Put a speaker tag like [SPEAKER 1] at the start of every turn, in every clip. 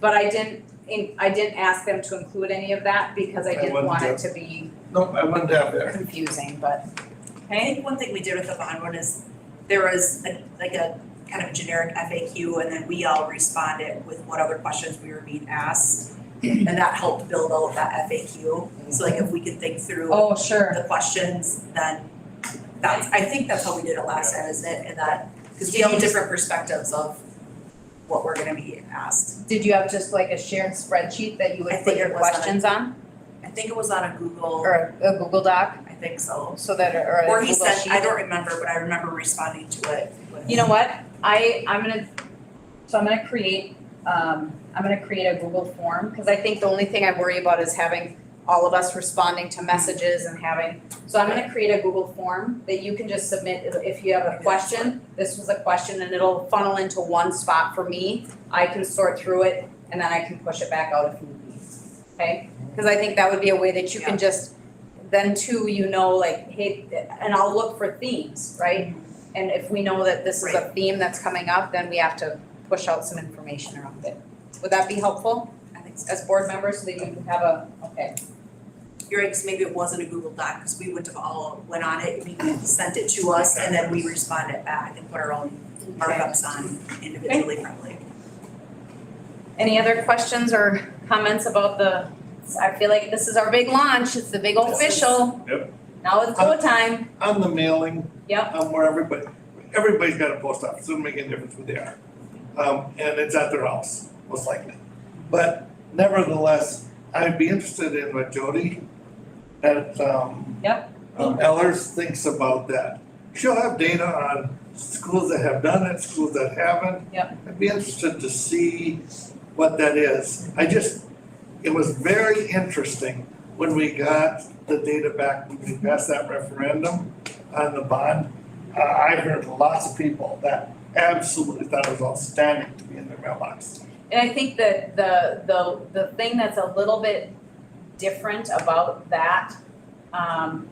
[SPEAKER 1] But I didn't, in- I didn't ask them to include any of that because I
[SPEAKER 2] I
[SPEAKER 1] didn't
[SPEAKER 2] wouldn't
[SPEAKER 1] want it
[SPEAKER 2] have-
[SPEAKER 1] to be
[SPEAKER 2] No, I went down there.
[SPEAKER 1] confusing, but,
[SPEAKER 3] I think one thing we did with the bond one is there was a, like a kind of generic FAQ and then we all responded with what other questions we were being asked. And that helped build all of that FAQ. So like if we could think through
[SPEAKER 1] oh, sure.
[SPEAKER 3] the questions, then that's, I think that's how we did it last time, isn't it? And that, because we
[SPEAKER 1] Did
[SPEAKER 3] all
[SPEAKER 1] you
[SPEAKER 3] have
[SPEAKER 1] just-
[SPEAKER 3] different perspectives of what we're gonna be asked.
[SPEAKER 1] Did you have just like a shared spreadsheet that you
[SPEAKER 3] I
[SPEAKER 1] would put
[SPEAKER 3] think
[SPEAKER 1] your
[SPEAKER 3] it was on a-
[SPEAKER 1] questions on?
[SPEAKER 3] I think it was on a Google,
[SPEAKER 1] Or a Google Doc,
[SPEAKER 3] I think so.
[SPEAKER 1] so that, or a Google sheet?
[SPEAKER 3] Or he sent, I don't remember, but I remember responding to it with.
[SPEAKER 1] You know what, I, I'm gonna, so I'm gonna create, um, I'm gonna create a Google form, cause I think the only thing I worry about is having all of us responding to messages and having, so I'm gonna create a Google form that you can just submit if- if you have a question. This was a question and it'll funnel into one spot for me, I can sort through it and then I can push it back out if need be, okay? Cause I think that would be a way that you can just, then too, you know, like, hey, and I'll look for themes, right? And if we know that this is a theme that's coming up, then we have to push out some information around it. Would that be helpful
[SPEAKER 3] I think so.
[SPEAKER 1] as board members so that you can have a, okay,
[SPEAKER 3] You're right, 'cause maybe it wasn't a Google Doc, because we would have all went on it, we sent it to us, and then we responded back and put our own markups on individually probably.
[SPEAKER 1] any other questions or comments about the, I feel like this is our big launch, it's the big official.
[SPEAKER 2] Yep.
[SPEAKER 1] Now it's go time,
[SPEAKER 2] On the mailing.
[SPEAKER 1] Yep.
[SPEAKER 2] On where everybody, everybody's got a post office, doesn't make any difference who they are. Um, and it's at their house, most likely. But nevertheless, I'd be interested in what Jody at, um.
[SPEAKER 1] Yep.
[SPEAKER 2] Um, Ellers thinks about that. She'll have data on schools that have done it, schools that haven't.
[SPEAKER 1] Yep.
[SPEAKER 2] I'd be interested to see what that is. I just, it was very interesting when we got the data back, when we passed that referendum on the bond. Uh, I heard lots of people that absolutely thought it was outstanding to be in their mailbox.
[SPEAKER 1] And I think that the, the, the thing that's a little bit different about that, um,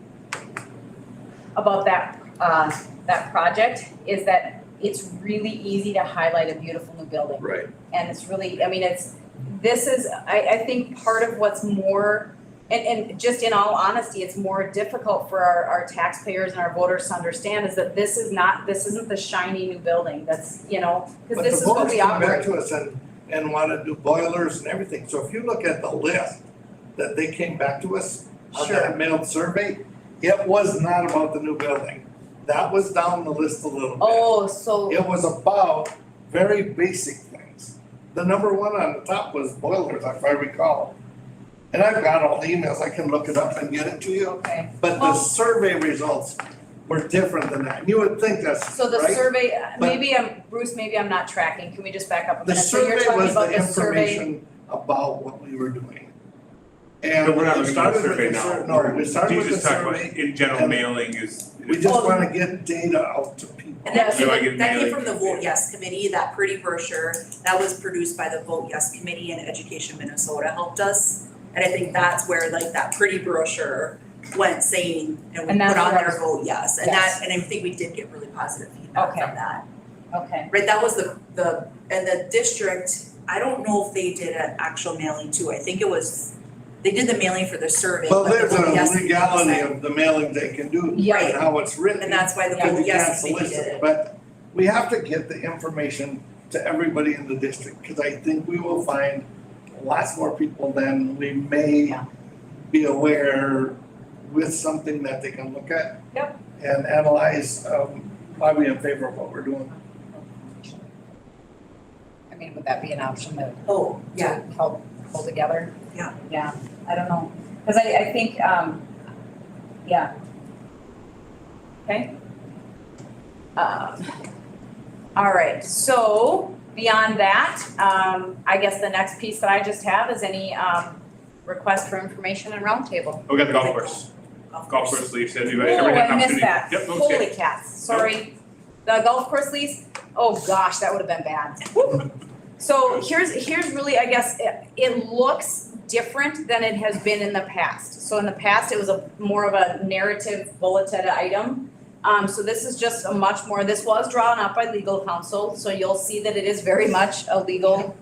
[SPEAKER 1] about that, uh, that project is that it's really easy to highlight a beautiful new building
[SPEAKER 2] Right.
[SPEAKER 1] and it's really, I mean, it's, this is, I, I think part of what's more, and, and just in all honesty, it's more difficult for our, our taxpayers and our voters to understand is that this is not, this isn't the shiny new building that's, you know, because this is what we
[SPEAKER 2] But the
[SPEAKER 1] operate.
[SPEAKER 2] voters come back to us and, and wanna do boilers and everything, so if you look at the list that they came back to us on
[SPEAKER 1] Sure.
[SPEAKER 2] that mailed survey, it was not about the new building, that was down the list a little bit.
[SPEAKER 1] Oh, so,
[SPEAKER 2] It was about very basic things. The number one on the top was boilers, if I recall. And I've got all the emails, I can look it up and get it to you,
[SPEAKER 1] okay.
[SPEAKER 2] but the
[SPEAKER 1] Well-
[SPEAKER 2] survey results were different than that. You would think that's right.
[SPEAKER 1] So the survey, uh,
[SPEAKER 2] But-
[SPEAKER 1] maybe I'm, Bruce, maybe I'm not tracking, can we just back up a
[SPEAKER 2] The
[SPEAKER 1] minute? So you're
[SPEAKER 2] survey
[SPEAKER 1] talking
[SPEAKER 2] was
[SPEAKER 1] about
[SPEAKER 2] the
[SPEAKER 1] the survey,
[SPEAKER 2] information about what we were doing.
[SPEAKER 4] But
[SPEAKER 2] And
[SPEAKER 4] we're not
[SPEAKER 2] we
[SPEAKER 4] looking at
[SPEAKER 2] started
[SPEAKER 4] the
[SPEAKER 2] with
[SPEAKER 4] survey
[SPEAKER 2] the
[SPEAKER 4] now.
[SPEAKER 2] sur- no, we started
[SPEAKER 4] You
[SPEAKER 2] with the
[SPEAKER 4] just talked about
[SPEAKER 2] survey,
[SPEAKER 4] in general
[SPEAKER 2] and-
[SPEAKER 4] mailing is.
[SPEAKER 2] we
[SPEAKER 1] Well-
[SPEAKER 2] just wanna get data out to people.
[SPEAKER 3] And that
[SPEAKER 1] Yeah,
[SPEAKER 4] so I
[SPEAKER 3] came,
[SPEAKER 4] get
[SPEAKER 3] that came
[SPEAKER 4] mailing
[SPEAKER 3] from the Vote Yes Committee, that pretty brochure, that was produced by the Vote Yes Committee and Education Minnesota helped us. And I think that's where like that pretty brochure went saying, and we
[SPEAKER 1] And that's
[SPEAKER 3] put on
[SPEAKER 1] what I
[SPEAKER 3] there, vote yes, and that,
[SPEAKER 1] Yes.
[SPEAKER 3] and I think we did get really positive feedback
[SPEAKER 1] Okay.
[SPEAKER 3] from that.
[SPEAKER 1] okay,
[SPEAKER 3] Right, that was the, the, and the district, I don't know if they did an actual mailing too, I think it was, they did the mailing for the survey,
[SPEAKER 2] Well,
[SPEAKER 3] but the
[SPEAKER 2] there's
[SPEAKER 3] vote yes
[SPEAKER 2] a
[SPEAKER 3] and
[SPEAKER 2] legality
[SPEAKER 3] yes,
[SPEAKER 2] of the mailing they can do
[SPEAKER 1] Yeah.
[SPEAKER 2] and how it's written.
[SPEAKER 3] And that's why the
[SPEAKER 1] Yeah.
[SPEAKER 3] vote
[SPEAKER 2] Because you can't
[SPEAKER 3] yes committee did
[SPEAKER 2] solicit,
[SPEAKER 3] it.
[SPEAKER 2] but we have to get the information to everybody in the district, cause I think we will find lots more people than we may
[SPEAKER 1] Yeah.
[SPEAKER 2] be aware with something that they can look at.
[SPEAKER 1] Yep.
[SPEAKER 2] And analyze, um, why we in favor of what we're doing.
[SPEAKER 1] I mean, would that be an option that
[SPEAKER 3] Oh, yeah,
[SPEAKER 1] to help pull together.
[SPEAKER 3] Yeah.
[SPEAKER 1] Yeah, I don't know, cause I, I think, um, yeah. Okay. Um, all right, so beyond that, um, I guess the next piece that I just have is any, um, request for information and roundtable.
[SPEAKER 4] Oh, We got the golf course,
[SPEAKER 3] of
[SPEAKER 4] golf
[SPEAKER 3] course.
[SPEAKER 4] course leaves, everybody,
[SPEAKER 1] Oh,
[SPEAKER 4] everybody had an
[SPEAKER 1] I
[SPEAKER 4] opportunity.
[SPEAKER 1] missed that,
[SPEAKER 4] Yep, okay.
[SPEAKER 1] holy cats, sorry. The golf course lease, oh gosh, that would have been bad. So here's, here's really, I guess, it, it looks different than it has been in the past. So in the past, it was a, more of a narrative bulleted item. Um, so this is just a much more, this was drawn up by legal counsel, so you'll see that it is very much a legal